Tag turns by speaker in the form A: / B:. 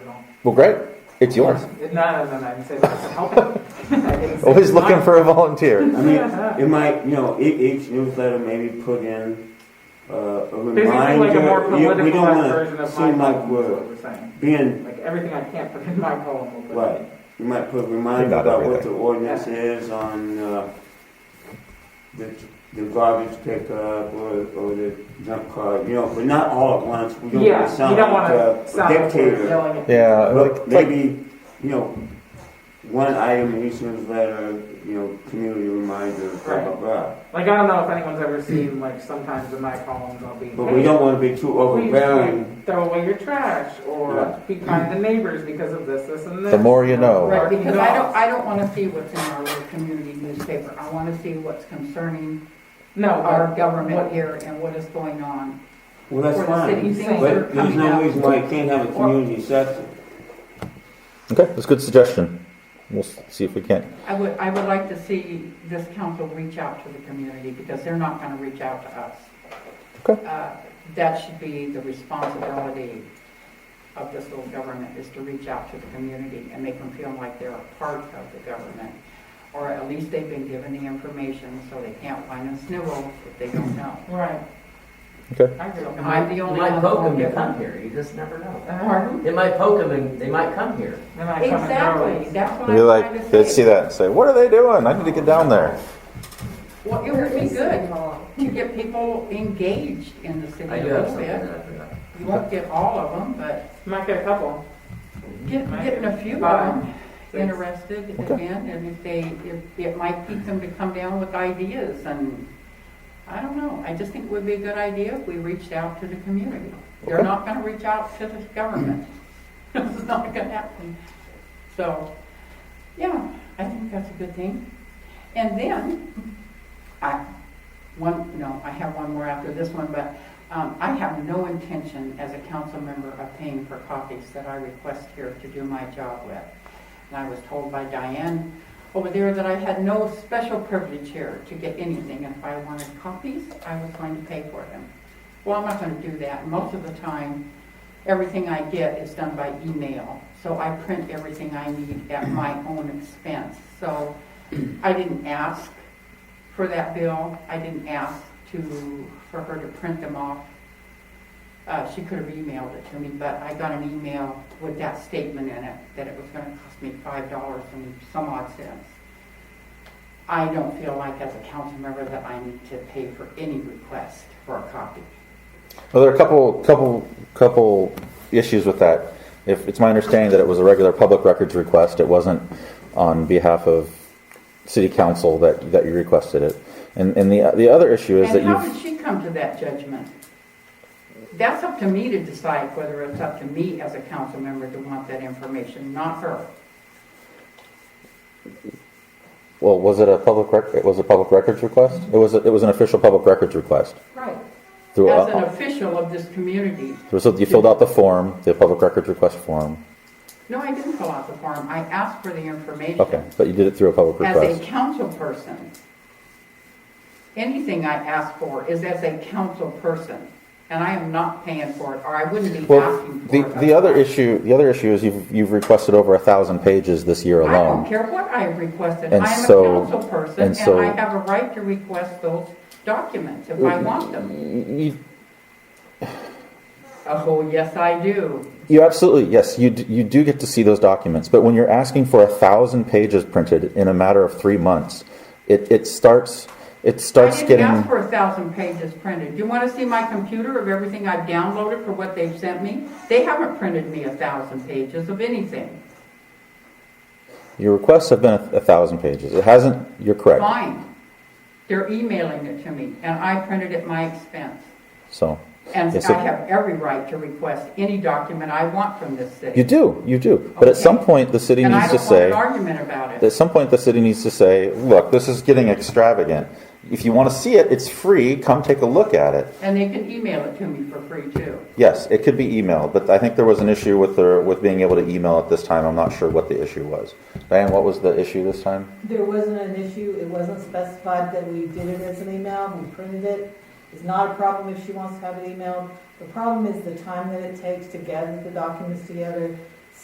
A: Well, great. It's yours.
B: No, no, no, no, I said it's helping. I didn't say
A: Always
B: it's
A: looking
B: not.
A: for a volunteer.
C: I mean, it might, you know, e- each newsletter maybe put in uh, a
B: Basically,
C: reminder.
B: like a more
C: You- we don't
B: politicized
C: wanna
B: version of my
C: seem like
B: column, is
C: we're
B: what we're saying.
C: Being,
B: Like, everything I can't put in my column, we'll put in.
C: right, you might put a reminder
A: About
C: about what the
A: everything.
C: ordinance is on uh, the the garbage pickup or or the junk car, you know, but not all at once. We don't
B: Yeah,
C: wanna
B: you
C: sound
B: don't
C: like
B: wanna
C: a
B: sound like we're
C: dictator.
B: yelling at.
A: Yeah, like,
C: But
A: like
C: maybe, you know, one item in each newsletter, you know, community reminder, blah, blah,
B: Right.
C: blah.
B: Like, I don't know if anyone's ever seen, like, sometimes in my columns, I'll be,
C: But we
B: hey,
C: don't want to be too
B: please
C: overbearing.
B: like, throw away your trash,
C: Yeah.
B: or be kind to neighbors because of this, this, and this.
A: the more you know.
D: Right,
B: Parking
D: because I don't,
B: lots.
D: I don't want to see what's in our little community newspaper. I want to see what's concerning
B: No,
D: our
B: but
D: government here and what is going on.
C: Well, that's
D: For the city,
C: fine.
D: things that are
C: But there's
D: coming
C: no
D: out.
C: reason why you can't have a community section.
A: Okay, that's a good suggestion. We'll s- see if we can.
D: I would, I would like to see this council reach out to the community because they're not going to reach out to us.
A: Okay.
D: Uh, That should be the responsibility of this little government is to reach out to the community and make them feel like they're a part of the government. Or at least they've been given the information so they can't whine and snivel if they don't know.
B: right.
A: Okay.
B: I agree.
D: Am I the
E: You
D: only
E: might
D: one that
E: poke them
D: won't
E: to
D: get
E: come
D: one?
E: here, you just never know.
B: Uh,
E: They might poke them and they might come here.
B: Then I come and
D: Exactly,
B: go.
D: that's what I'm
A: You're
D: trying
A: like,
D: to say.
A: they see that and say, what are they doing? I need to get down there.
D: Well, it would be good to get people engaged in the city
E: I
D: a
E: do have
D: little
E: something that
D: bit.
E: I forgot.
D: You won't get all of them, but
B: Might get a couple.
D: get,
B: Might
D: getting a few of
B: five,
D: them
B: six.
D: interested
A: Okay.
D: again, and if they, if, it might keep them to come down with ideas and, I don't know, I just think it would be a good idea if we reached out to the community. They're
A: Okay.
D: not gonna reach out to the government. This is not gonna happen. So, yeah, I think that's a good thing. And then, I, one, no, I have one more after this one, but um, I have no intention as a council member of paying for copies that I request here to do my job with. And I was told by Diane over there that I had no special privilege here to get anything, and if I wanted copies, I was going to pay for them. Well, I'm not going to do that. Most of the time, everything I get is done by email, so I print everything I need at my own expense. So I didn't ask for that bill. I didn't ask to, for her to print them off. Uh, she could have emailed it to me, but I got an email with that statement in it, that it was gonna cost me five dollars and some odd cents. I don't feel like as a council member that I need to pay for any request for a copy.
A: Well, there are a couple, couple, couple issues with that. If, it's my understanding that it was a regular public records request, it wasn't on behalf of city council that, that you requested it. And, and the, the other issue is that
D: And how did
A: you've,
D: she come to that judgment? That's up to me to decide whether it's up to me as a council member to want that information, not her.
A: well, was it a public rec, it was a public records request? It was, a- it was an official public records request.
D: Right.
A: through uh,
D: As an
A: a-
D: official of this community,
A: So you filled out the form, the public records request form.
D: no, I didn't fill out the form, I asked for the information.
A: Okay, but you did it through a public
D: as a
A: request.
D: council person. Anything I ask for is as a council person, and I am not paying for it, or I wouldn't be
A: Well,
D: asking for
A: the,
D: it.
A: the other issue, the other issue is you've, you've requested over a thousand pages this year
D: I don't
A: alone.
D: care what I have requested,
A: And
D: I am a
A: so-
D: council person,
A: and
D: and
A: so-
D: I have a right to request those documents if I want them.
A: You,
D: Oh, yes, I do.
A: you absolutely, yes, you, d- you do get to see those documents, but when you're asking for a thousand pages printed in a matter of three months, it, it starts, it starts
D: I didn't ask
A: getting,
D: for a thousand pages printed. Do you want to see my computer of everything I've downloaded for what they've sent me? They haven't printed me a thousand pages of anything.
A: your requests have been a, a thousand pages. It hasn't, you're correct,
D: Fine. They're emailing it to me, and I printed at my expense.
A: so.
D: And
A: Yes, sir.
D: I have every right to request any document I want from this
A: You
D: city.
A: do, you do, but at
D: Okay.
A: some point, the city
D: And
A: needs
D: I
A: to
D: don't want
A: say.
D: an argument about
A: At
D: it.
A: some point, the city needs to say, look, this is getting extravagant. If you want to see it, it's free. Come take a look at it.
D: And they can email it to me for free, too.
A: Yes, it could be emailed, but I think there was an issue with the, with being able to email at this time. I'm not sure what the issue was. Diane, what was the issue this time?
F: There wasn't an issue, it wasn't specified that we did it as an email, we printed it. It's not a problem if she wants to have it emailed. The problem is the time that it takes to gather the documents together